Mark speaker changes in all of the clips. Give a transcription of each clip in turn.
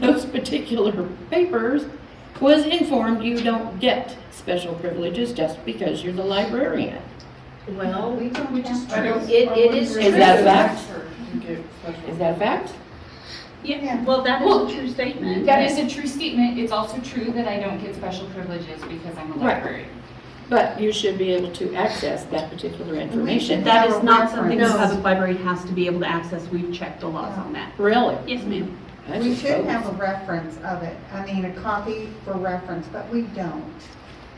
Speaker 1: those particular papers was informed you don't get special privileges just because you're the librarian.
Speaker 2: Well,
Speaker 3: We don't
Speaker 4: Which is
Speaker 3: have-
Speaker 4: true.
Speaker 2: It- it is
Speaker 1: Is that
Speaker 2: true.
Speaker 1: fact?
Speaker 4: You get special-
Speaker 1: Is that a fact?
Speaker 3: Yeah.
Speaker 2: yeah, well, that
Speaker 4: Well,
Speaker 2: is a true statement.
Speaker 4: That is a true statement. It's also true that I don't get special privileges because I'm a
Speaker 1: Right.
Speaker 4: librarian.
Speaker 1: But you should be able to access that particular information.
Speaker 2: That is not something the
Speaker 1: No.
Speaker 2: public library has to be able to access. We've checked the laws on that.
Speaker 1: Really?
Speaker 2: Yes, ma'am.
Speaker 1: I
Speaker 3: We
Speaker 1: just
Speaker 3: should
Speaker 1: vote.
Speaker 3: have a reference of it, I mean, a copy for reference, but we don't.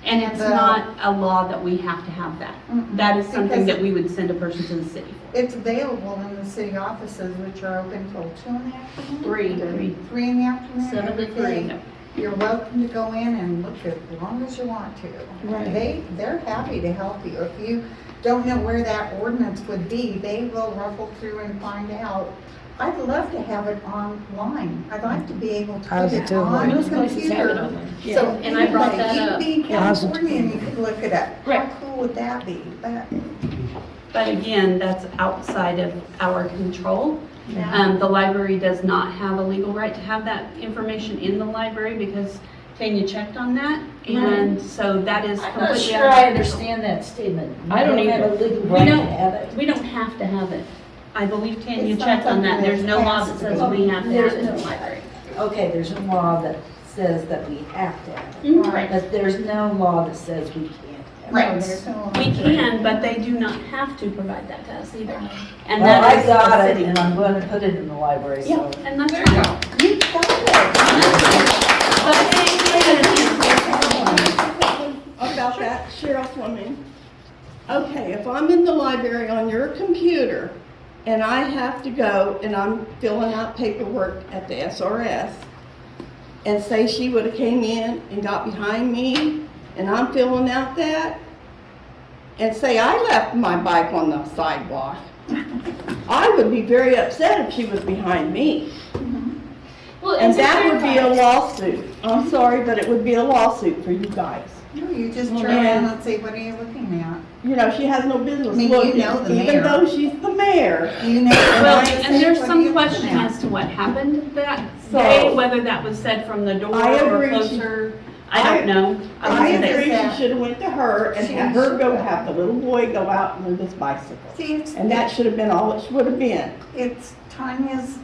Speaker 2: And it's
Speaker 3: The-
Speaker 2: not a law that we have to have that.
Speaker 3: Mm-mm.
Speaker 2: That is something
Speaker 3: Because-
Speaker 2: that we would send a person to the city for.
Speaker 3: It's available in the city offices, which are open till two in the afternoon?
Speaker 2: Three.
Speaker 3: Three in the afternoon?
Speaker 2: Seven to
Speaker 3: every
Speaker 2: three.
Speaker 3: day. You're welcome to go in and look as long as you want to.
Speaker 1: Right.
Speaker 3: They, they're happy to help you. If you don't know where that ordinance would be, they will ruffle through and find out. I'd love to have it online. I'd like to be able to
Speaker 5: How's
Speaker 3: put
Speaker 5: it
Speaker 3: it
Speaker 5: doing?
Speaker 3: on
Speaker 1: Most
Speaker 3: the
Speaker 1: places have it
Speaker 3: computer.
Speaker 1: online.
Speaker 3: So
Speaker 1: Yeah.
Speaker 2: and I brought
Speaker 3: anybody, You
Speaker 2: that up.
Speaker 3: could be in
Speaker 5: How's it-
Speaker 3: California and you could look it up.
Speaker 1: Right.
Speaker 3: How cool would that be? But
Speaker 2: But again, that's outside of our control.
Speaker 3: Yeah.
Speaker 2: Um, the library does not have a legal right to have that information in the library because Tanya checked on that. And so that is
Speaker 6: I'm not
Speaker 2: completely out
Speaker 6: sure I
Speaker 2: of our control.
Speaker 6: understand that statement.
Speaker 1: I don't
Speaker 6: We have a
Speaker 1: either.
Speaker 6: legal
Speaker 2: We
Speaker 6: right to
Speaker 2: don't-
Speaker 6: have it.
Speaker 2: We don't have to have it. I believe Tanya
Speaker 3: It's not
Speaker 2: checked on that.
Speaker 3: something
Speaker 2: There's no law that
Speaker 3: that's
Speaker 2: says we have to have it in the
Speaker 6: There's no-
Speaker 2: library.
Speaker 6: Okay, there's a law that says that we have to have it,
Speaker 4: Mm-hmm.
Speaker 2: Right.
Speaker 6: but there's no law that says we can't have it.
Speaker 2: Right.
Speaker 3: there's no-
Speaker 2: We can, but they do not have to provide that to us either. And
Speaker 6: Well,
Speaker 2: that
Speaker 6: I
Speaker 2: is the
Speaker 6: got it,
Speaker 2: city.
Speaker 6: and I'm going to put it in the library,
Speaker 2: Yeah,
Speaker 6: so.
Speaker 2: and that's
Speaker 4: There you
Speaker 2: right.
Speaker 4: go.
Speaker 3: You got it.
Speaker 7: about that sheriff woman. Okay, if I'm in the library on your computer and I have to go and I'm filling out paperwork at the SRS and say she would have came in and got behind me and I'm filling out that and say I left my bike on the sidewalk, I would be very upset if she was behind me.
Speaker 4: Well,
Speaker 7: And
Speaker 4: to
Speaker 7: that would be a
Speaker 4: clarify-
Speaker 7: lawsuit. I'm sorry, but it would be a lawsuit for you guys.
Speaker 3: No, you just
Speaker 7: Well,
Speaker 3: turn around
Speaker 7: yeah.
Speaker 3: and say, what are you looking at?
Speaker 7: you know, she has no business
Speaker 3: I mean, you
Speaker 7: looking,
Speaker 3: know the mayor.
Speaker 7: even though she's the mayor.
Speaker 3: You know,
Speaker 2: Well,
Speaker 3: I
Speaker 2: and
Speaker 3: say,
Speaker 2: there's
Speaker 3: "What are
Speaker 2: some
Speaker 3: you looking
Speaker 2: question
Speaker 3: at?"
Speaker 2: as to what happened that
Speaker 7: So-
Speaker 2: day, whether that was said from the door
Speaker 7: I
Speaker 2: or
Speaker 7: agree.
Speaker 2: closer. I don't know.
Speaker 7: I
Speaker 2: wasn't there.
Speaker 7: agree,
Speaker 3: that.
Speaker 7: she should've went to her and
Speaker 3: She
Speaker 7: had her go
Speaker 3: should've.
Speaker 7: have the little boy go out and move his bicycle.
Speaker 3: See, it's,
Speaker 7: And that should've been all it should've been.
Speaker 3: it's Tanya's,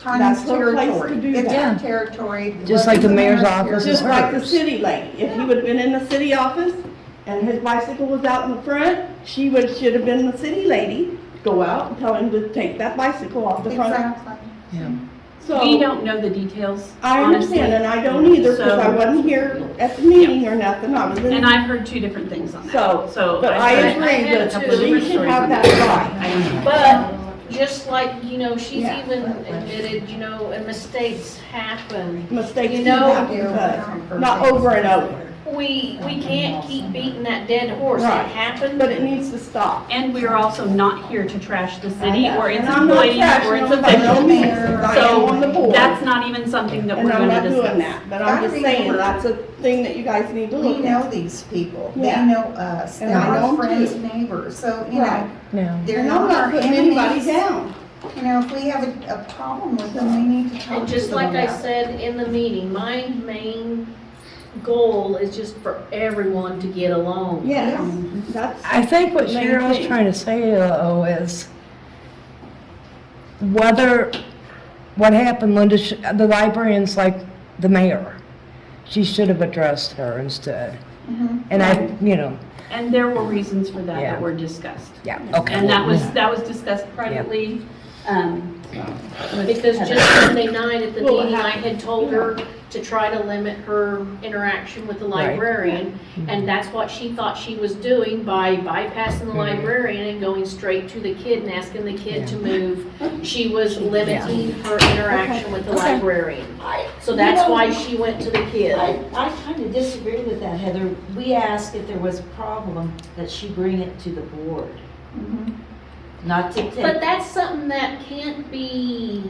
Speaker 3: Tanya's
Speaker 7: That's her place to do
Speaker 3: territory. It's her
Speaker 7: that.
Speaker 3: territory.
Speaker 5: Just like the mayor's office.
Speaker 7: Just like the
Speaker 5: Works.
Speaker 7: city lady, if he would've been in the city office and his bicycle was out in the front, she would, should've been the city lady, go out and tell him to take that bicycle off the front.
Speaker 3: Exactly.
Speaker 7: So
Speaker 2: We don't know the details,
Speaker 7: I
Speaker 2: honestly.
Speaker 7: understand, and I don't either, because I
Speaker 2: So-
Speaker 7: wasn't here at the meeting or nothing, I was in.
Speaker 2: And I've heard two different things on that.
Speaker 7: So,
Speaker 2: So.
Speaker 7: But I
Speaker 2: I've heard-
Speaker 7: agree
Speaker 2: had a
Speaker 7: that
Speaker 2: couple
Speaker 7: the
Speaker 2: different
Speaker 7: league should
Speaker 2: stories
Speaker 7: have
Speaker 2: on
Speaker 7: that right.
Speaker 2: I don't know.
Speaker 8: But just like, you know, she's
Speaker 7: Yeah.
Speaker 8: even admitted, you know, and mistakes happen.
Speaker 7: Mistakes
Speaker 8: You
Speaker 7: do
Speaker 8: know-
Speaker 7: happen, but not over and over.
Speaker 8: We, we can't keep beating that dead horse. It
Speaker 7: Right.
Speaker 8: happened.
Speaker 7: But it needs to stop.
Speaker 2: And we are also not here to trash the
Speaker 7: I
Speaker 2: city
Speaker 7: know.
Speaker 2: or its
Speaker 7: And I'm not
Speaker 2: employees or its
Speaker 7: trashing them by no
Speaker 2: officials.
Speaker 7: means, 'cause I am on the
Speaker 2: So
Speaker 7: board,
Speaker 2: that's not even something that
Speaker 7: and
Speaker 2: we're
Speaker 7: I'm
Speaker 2: going
Speaker 7: not
Speaker 2: to
Speaker 7: doing
Speaker 2: discuss.
Speaker 7: that, but I'm just saying, that's a thing that you guys need to
Speaker 3: We
Speaker 7: look
Speaker 3: know
Speaker 7: at.
Speaker 3: these people, they
Speaker 7: Yeah.
Speaker 3: know us,
Speaker 7: And
Speaker 3: they're
Speaker 7: I
Speaker 3: our
Speaker 7: know
Speaker 3: friends,
Speaker 7: too.
Speaker 3: neighbors, so, you
Speaker 7: Right.
Speaker 3: know,
Speaker 5: No.
Speaker 3: they're
Speaker 7: And I'm
Speaker 3: not our
Speaker 7: not putting anybody
Speaker 3: enemies.
Speaker 7: down.
Speaker 3: You know, if we have a, a problem with them, we need to talk to them
Speaker 8: And just like I
Speaker 3: about it.
Speaker 8: said in the meeting, my main goal is just for everyone to get along.
Speaker 7: Yes, that's,
Speaker 5: I think what
Speaker 7: Main
Speaker 5: Cheryl's
Speaker 7: thing.
Speaker 5: trying to say, though, is whether, what happened, Linda, sh- the librarian's like the mayor. She should have addressed her instead.
Speaker 3: Mm-hmm.
Speaker 5: And I, you know,
Speaker 2: And there were reasons for that
Speaker 5: Yeah.
Speaker 2: that were discussed.
Speaker 5: yeah, okay.
Speaker 2: And that was, that was discussed privately. um,
Speaker 8: Because just Sunday night at the
Speaker 7: Well, it
Speaker 8: meeting, I
Speaker 7: happened.
Speaker 8: had told her to try to limit her interaction with the
Speaker 5: Right.
Speaker 8: librarian. And that's what she thought she was doing by bypassing the librarian and going straight to the kid and asking the kid to move. She was limiting her interaction with the librarian.
Speaker 6: I-
Speaker 8: So
Speaker 6: you
Speaker 8: that's
Speaker 6: know,
Speaker 8: why she went to the kid.
Speaker 6: I, I kind of disagree with that, Heather. We asked if there was a problem, that she bring it to the board. Not to
Speaker 8: But
Speaker 6: take,
Speaker 8: that's something that can't be,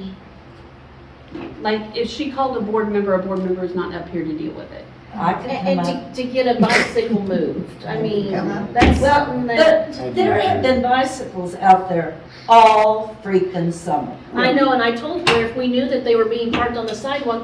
Speaker 2: Like, if she called a board member, a board member is not up here to deal with it.
Speaker 6: I can come
Speaker 8: and
Speaker 6: up.
Speaker 8: and to, to get a bicycle moved. I mean,
Speaker 3: Come on.
Speaker 8: that's
Speaker 6: Well,
Speaker 8: something that,
Speaker 6: but there have been bicycles out there all freaking summer.
Speaker 8: I know, and I told her if we knew that they were being parked on the sidewalk,